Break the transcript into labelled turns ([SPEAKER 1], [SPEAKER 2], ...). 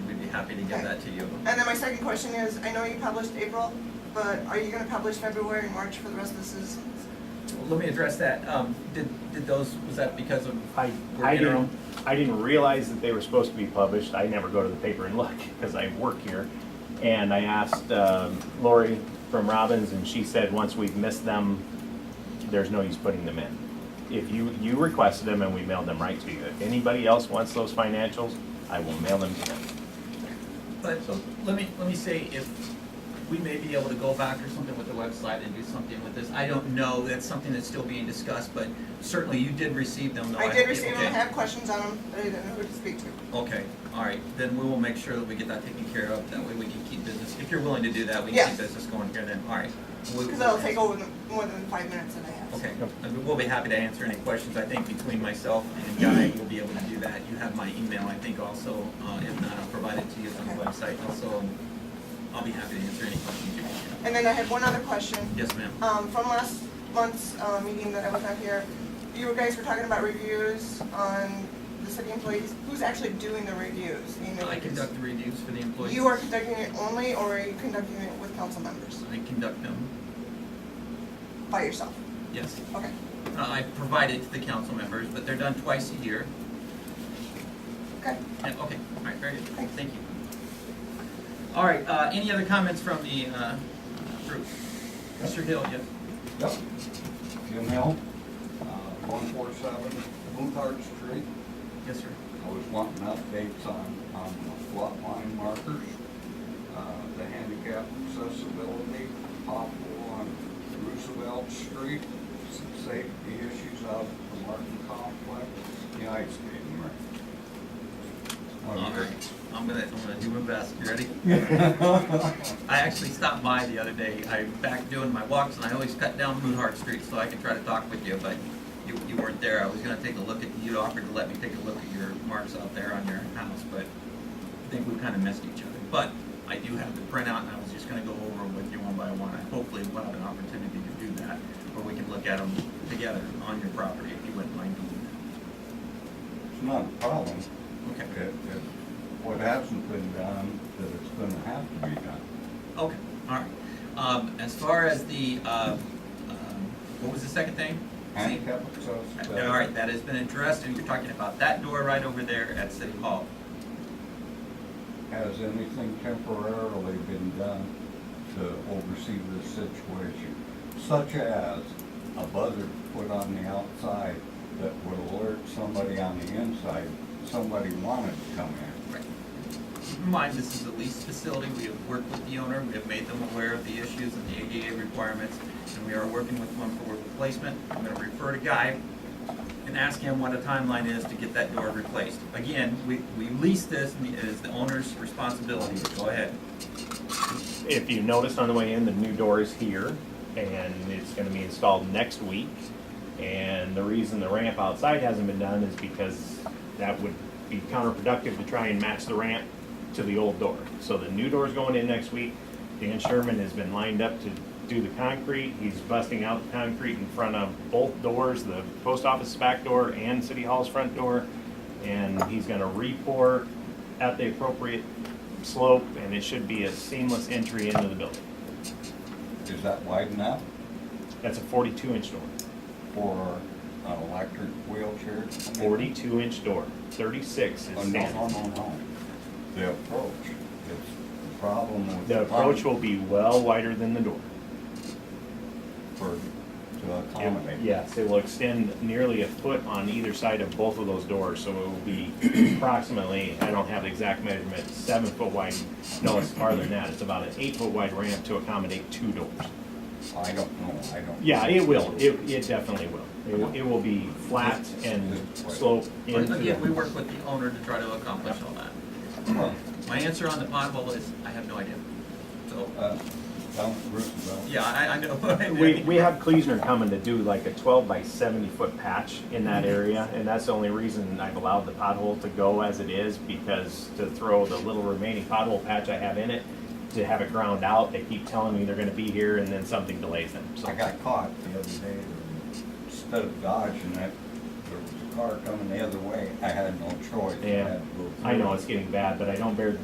[SPEAKER 1] happy to give that to you.
[SPEAKER 2] And then my second question is, I know you published April, but are you gonna publish February and March for the rest of the seasons?
[SPEAKER 1] Let me address that. Um, did, did those, was that because of,
[SPEAKER 3] I,
[SPEAKER 1] We're
[SPEAKER 3] I
[SPEAKER 1] in our
[SPEAKER 3] didn't, I didn't realize that they were supposed to be published. I never go to the paper and look because I work here. And I asked um, Lori from Robbins and she said, once we've missed them, there's no use putting them in. If you, you requested them and we mailed them right to you. If anybody else wants those financials, I will mail them to them.
[SPEAKER 1] but let me, let me say if we may be able to go back or something with the website and do something with this. I don't know, that's something that's still being discussed, but certainly you did receive them though.
[SPEAKER 2] I did receive them, I
[SPEAKER 1] okay.
[SPEAKER 2] have questions on them, but I didn't know who to speak to.
[SPEAKER 1] Okay, all right, then we will make sure that we get that taken care of, that way we can keep business, if you're willing to do that, we can keep
[SPEAKER 2] Yeah.
[SPEAKER 1] business going here then, all right. We-
[SPEAKER 2] Because that'll take over the- more than five minutes that I have.
[SPEAKER 1] Okay, I mean, we'll be happy to answer any questions, I think between myself and Guy, we'll be able to do that. You have my email, I think also, uh, if not, I'll provide it to you on the website also, and I'll be happy to answer any questions you may have.
[SPEAKER 2] And then I had one other question.
[SPEAKER 1] Yes, ma'am,
[SPEAKER 2] Um, from last month's, uh, meeting that I was not here, you guys were talking about reviews on the city employees. Who's actually doing the reviews? You know,
[SPEAKER 1] I conduct the reviews for the employees.
[SPEAKER 2] You are conducting it only, or are you conducting it with council members
[SPEAKER 1] I conduct them,
[SPEAKER 2] by yourself?
[SPEAKER 1] yes.
[SPEAKER 2] Okay.
[SPEAKER 1] Uh, I provide it to the council members, but they're done twice a year.
[SPEAKER 2] Okay.
[SPEAKER 1] Yeah, okay, all right, very good, thank you. All right, uh, any other comments from the, uh, group? Mr. Hill, yes?
[SPEAKER 4] Yep. Jim Hill, uh, one four seven Boothard Street.
[SPEAKER 1] Yes, sir.
[SPEAKER 4] I was wanting updates on, on the lot line markers, uh, the handicap accessibility, pothole on Roosevelt Street, some safety issues out at the Martin Complex, the ice skating rink.
[SPEAKER 1] All right, I'm gonna, I'm gonna do my best, you ready? I actually stopped by the other day, I'm back doing my walks, and I always cut down Moonheart Street so I can try to talk with you, but you, you weren't there, I was gonna take a look at, you offered to let me take a look at your marks out there on your house, but I think we kinda missed each other, but I do have the printout, and I was just gonna go over with you one by one, I hopefully will have an opportunity to do that, where we can look at them together on your property, if you wouldn't mind doing
[SPEAKER 4] It's not a problem.
[SPEAKER 1] that.
[SPEAKER 4] It- it- What hasn't been done, that it's gonna have to be done.
[SPEAKER 1] Okay, all right. Um, as far as the, um, um, what was the second thing?
[SPEAKER 4] Handicap
[SPEAKER 1] See,
[SPEAKER 4] accessibility.
[SPEAKER 1] All right, that has been addressed, and you're talking about that door right over there at City Hall.
[SPEAKER 4] Has anything temporarily been done to oversee this situation? Such as a buzzer put on the outside that would alert somebody on the inside, somebody wanted to come in.
[SPEAKER 1] Keep in mind, this is a leased facility, we have worked with the owner, we have made them aware of the issues and the ADA requirements, and we are working with one for replacement. I'm gonna refer to Guy and ask him what a timeline is to get that door replaced. Again, we, we lease this, and it is the owner's responsibility, go ahead.
[SPEAKER 3] If you noticed on the way in, the new door is here, and it's gonna be installed next week. And the reason the ramp outside hasn't been done is because that would be counterproductive to try and match the ramp to the old door. So the new door's going in next week. Dan Sherman has been lined up to do the concrete. He's busting out the concrete in front of both doors, the post office back door and City Hall's front door. And he's gonna re-pour at the appropriate slope, and it should be a seamless entry into the building.
[SPEAKER 4] Is that wide enough
[SPEAKER 3] That's a forty-two inch door,
[SPEAKER 4] for an electric wheelchair? to come in?
[SPEAKER 3] forty-two inch door, thirty-six
[SPEAKER 4] Oh,
[SPEAKER 3] is
[SPEAKER 4] No, no,
[SPEAKER 3] standard.
[SPEAKER 4] no, no. The approach, it's the problem with.
[SPEAKER 3] The approach
[SPEAKER 4] park
[SPEAKER 3] will be well wider than the door.
[SPEAKER 4] For, to accommodate.
[SPEAKER 3] Yes, it will extend nearly a foot on either side of both of those doors, so it will be approximately, I don't have the exact measurement, seven foot wide. No, it's farther than that, it's about an eight foot wide ramp to accommodate two doors.
[SPEAKER 4] I don't know, I don't.
[SPEAKER 3] Yeah, it will, it, it definitely will. It will, it will be flat and slope
[SPEAKER 1] But
[SPEAKER 3] into.
[SPEAKER 1] again, we work with the owner to try to accomplish all that.
[SPEAKER 4] Well,
[SPEAKER 1] My answer on the pothole is, I have no idea. So,
[SPEAKER 4] uh, Down Roosevelt.
[SPEAKER 1] yeah, I, I know. I know.
[SPEAKER 3] We, we have Kleesner coming to do like a twelve by seventy foot patch in that
[SPEAKER 4] Mm-hmm.
[SPEAKER 3] area, and that's the only reason I've allowed the pothole to go as it is, because to throw the little remaining pothole patch I have in it, to have it ground out, they keep telling me they're gonna be here, and then something delays them, so.
[SPEAKER 4] I got caught the other day, instead of dodging it, there was a car coming the other way, I had no choice. I
[SPEAKER 3] Yeah.
[SPEAKER 4] had to go
[SPEAKER 3] I know
[SPEAKER 4] through.
[SPEAKER 3] it's getting bad, but I don't bear